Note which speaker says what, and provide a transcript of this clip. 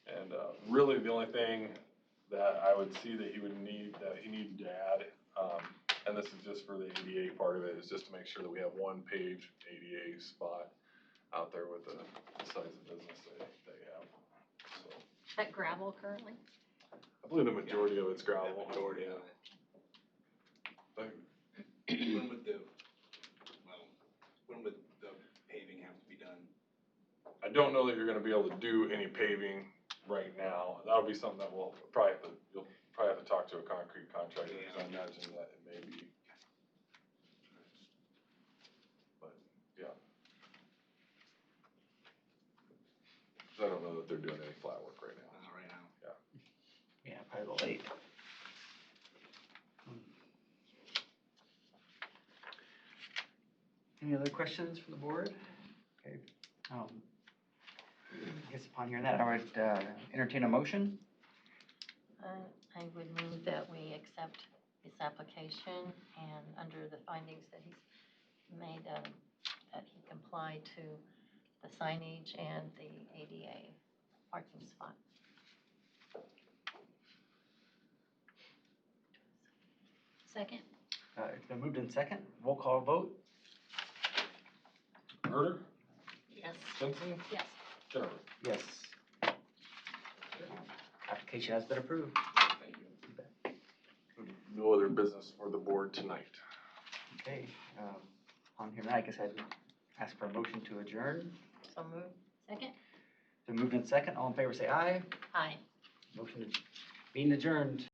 Speaker 1: uh, really the only thing that I would see that he would need, that he needed to add, um, and this is just for the ADA part of it, is just to make sure that we have one page ADA spot out there with the the size of business they, they have, so.
Speaker 2: That gravel currently?
Speaker 1: I believe the majority of it's gravel, yeah. But
Speaker 3: When would the, well, when would the paving have to be done?
Speaker 1: I don't know that you're gonna be able to do any paving right now. That'll be something that we'll probably have to, you'll probably have to talk to a concrete contractor, because I imagine that it may be. But, yeah. 'Cause I don't know that they're doing any flat work right now.
Speaker 3: Uh, right now,
Speaker 4: Yeah, probably the late. Hmm. Any other questions from the board? Okay, um, I guess upon hearing that, I would uh, entertain a motion.
Speaker 2: Uh, I would move that we accept his application and under the findings that he's made, um, that he complied to the signage and the ADA parking spot. Second?
Speaker 4: Uh, it's been moved in second, roll call vote,
Speaker 1: Herder,
Speaker 2: Yes.
Speaker 1: Stinson,
Speaker 2: Yes.
Speaker 1: Turner.
Speaker 4: yes. Application has been approved.
Speaker 3: thank you.
Speaker 1: No other business for the board tonight.
Speaker 4: Okay, um, upon hearing that, I guess I'd ask for a motion to adjourn.
Speaker 2: So move. Second?
Speaker 4: It's been moved in second, all in favor say aye.
Speaker 2: Aye.
Speaker 4: Motion being adjourned.